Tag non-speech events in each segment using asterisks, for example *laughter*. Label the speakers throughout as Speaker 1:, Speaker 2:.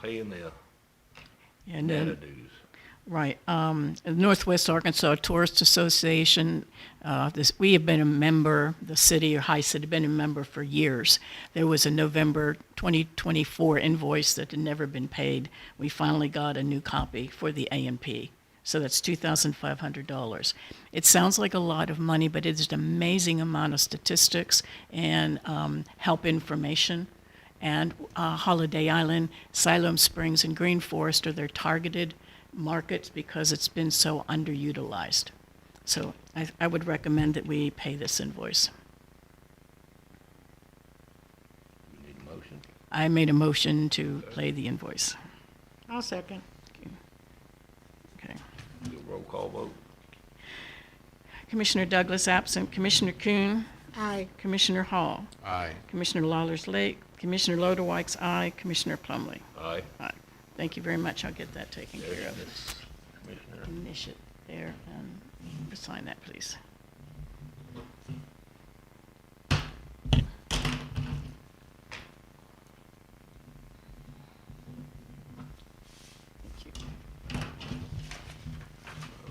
Speaker 1: paying their
Speaker 2: And
Speaker 1: data
Speaker 2: then,
Speaker 1: dues.
Speaker 2: right, um, Northwest Arkansas Tourist Association, uh, this, we have been a member, the city or High City, been a member for years. There was a November 2024 invoice that had never been paid. We finally got a new copy for the A and P. So that's $2,500. It sounds like a lot of money, but it's an amazing amount of statistics and um, help information. and uh, Holiday Island, Siloam Springs, and Green Forest are their targeted markets because it's been so underutilized. So I, I would recommend that we pay this invoice.
Speaker 1: We need a motion.
Speaker 2: I made a motion to pay the invoice.
Speaker 3: I'll second.
Speaker 2: Okay.
Speaker 1: Do a roll call vote.
Speaker 2: Commissioner Douglas absent, Commissioner Kuhn,
Speaker 3: Aye.
Speaker 2: Commissioner Hall,
Speaker 4: Aye.
Speaker 2: Commissioner Lawler's Lake, Commissioner Lodewijk's aye, Commissioner Plumley.
Speaker 1: Aye.
Speaker 2: Aye. Thank you very much. I'll get that taken
Speaker 1: There's
Speaker 2: care of.
Speaker 1: this, Commissioner.
Speaker 2: Finish it there and sign that, please. Thank you.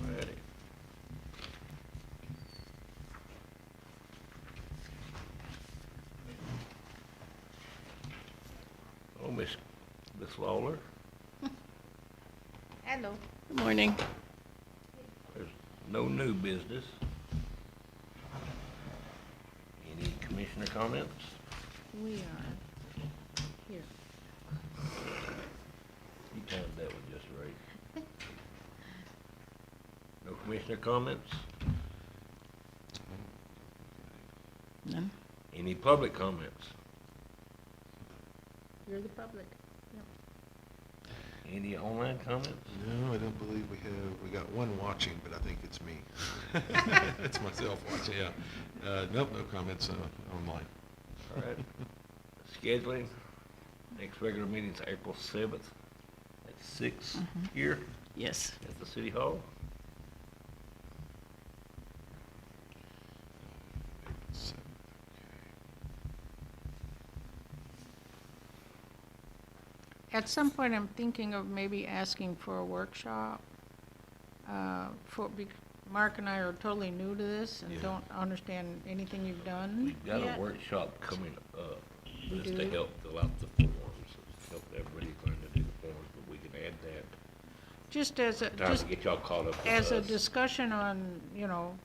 Speaker 1: Alrighty. Oh, Miss, Miss Lawler,
Speaker 5: Hello.
Speaker 2: Good morning.
Speaker 1: there's no new business. Any commissioner comments?
Speaker 5: We are here.
Speaker 1: You timed that one just right. No commissioner comments?
Speaker 2: None?
Speaker 1: Any public comments?
Speaker 5: You're the public.
Speaker 1: Any online comments?
Speaker 4: No, I don't believe we have, we got one watching, but I think it's me. It's myself watching, yeah. Uh, nope, no comments, uh, online.
Speaker 1: All right. Scheduling, next regular meeting's April seventh at six
Speaker 3: Mm-hmm.
Speaker 1: here
Speaker 2: Yes.
Speaker 1: at the city hall.
Speaker 4: So,
Speaker 3: At some point, I'm thinking of maybe asking for a workshop. uh, For, bec- Mark and I are totally new to this and
Speaker 4: Yeah.
Speaker 3: don't understand anything you've done.
Speaker 1: We've got
Speaker 3: yet.
Speaker 1: a workshop coming up,
Speaker 3: We
Speaker 1: just to
Speaker 3: do?
Speaker 1: help fill out the forms, help everybody learn to do the forms, but we can add that.
Speaker 3: Just as, a
Speaker 1: Time to
Speaker 3: just
Speaker 1: get y'all caught up with
Speaker 3: as a
Speaker 1: us.
Speaker 3: discussion on, you know,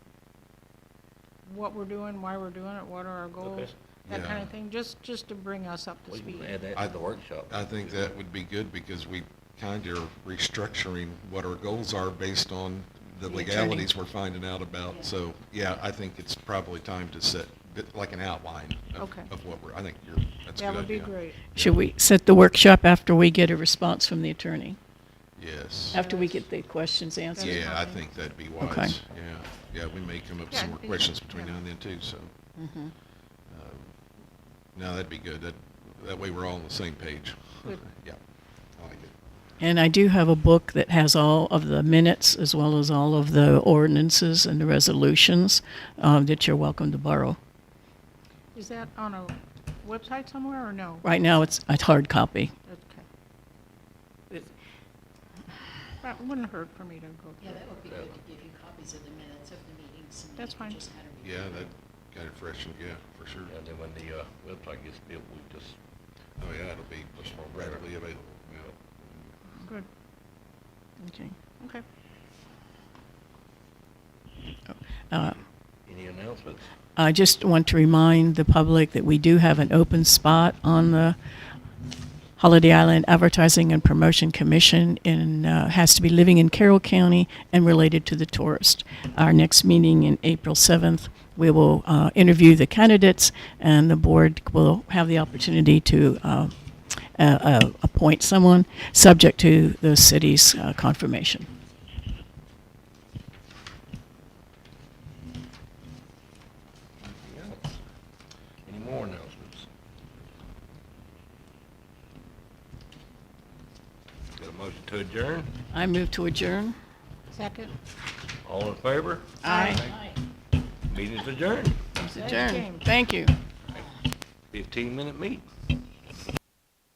Speaker 3: what we're doing, why we're doing it, what are our goals, that kind
Speaker 4: Yeah.
Speaker 3: of thing, just, just to bring us up to
Speaker 1: We
Speaker 3: speed.
Speaker 1: can add that
Speaker 4: I-
Speaker 1: to the workshop.
Speaker 4: I think that would be good because we kind of are restructuring what our goals are based on the
Speaker 2: The attorney.
Speaker 4: legalities we're finding out about.
Speaker 3: Yeah.
Speaker 4: So, yeah, I think it's probably time to set, bit- like an outline of,
Speaker 3: Okay.
Speaker 4: of what we're, I think you're, that's a good idea.
Speaker 3: That would be great.
Speaker 2: Should we set the workshop after we get a response from the attorney?
Speaker 4: Yes.
Speaker 2: After we get the questions answered?
Speaker 4: Yeah, I think that'd be
Speaker 2: Okay.
Speaker 4: wise. Yeah, yeah, we may come up with
Speaker 3: Yeah,
Speaker 4: some more
Speaker 3: I think
Speaker 4: questions
Speaker 3: that-
Speaker 4: between
Speaker 3: yeah.
Speaker 4: now and then too, so. Um, No, that'd be good. That, that way we're all on the same page.
Speaker 3: Good.
Speaker 4: *laughs* Yeah, I like it.
Speaker 2: And I do have a book that has all of the minutes as well as all of the ordinances and the resolutions um, that you're welcome to borrow.
Speaker 3: Is that on a website somewhere or no?
Speaker 2: Right now, it's a hard copy.
Speaker 3: Okay. That wouldn't hurt for me to go
Speaker 6: Yeah,
Speaker 3: through.
Speaker 6: that would be good to give you copies of the minutes of the meetings. and
Speaker 3: That's
Speaker 6: you can
Speaker 3: fine.
Speaker 6: just kind of review
Speaker 4: Yeah,
Speaker 6: them.
Speaker 4: that kind of freshened, yeah, for sure.
Speaker 1: And then when the, uh, website gets built, we just,
Speaker 4: Oh, yeah, it'll be much more readily available.
Speaker 1: you
Speaker 4: yeah.
Speaker 1: know,
Speaker 3: Good,
Speaker 2: Okay.
Speaker 3: okay.
Speaker 2: Uh,
Speaker 1: any announcements?
Speaker 2: I just want to remind the public that we do have an open spot on the Holiday Island Advertising and Promotion Commission and uh, has to be living in Carroll County and related to the tourist. Our next meeting in April 7th, we will uh, interview the candidates and the board will have the opportunity to uh, uh, uh, appoint someone subject to the city's uh, confirmation.
Speaker 1: Anything else? Any more announcements? Got a motion to adjourn?
Speaker 2: I move to adjourn.
Speaker 3: Second?
Speaker 1: All in favor?
Speaker 2: Aye.
Speaker 1: Meeting's adjourned.
Speaker 2: Adjourn.
Speaker 3: James.
Speaker 2: Thank you.
Speaker 1: Fifteen-minute meet.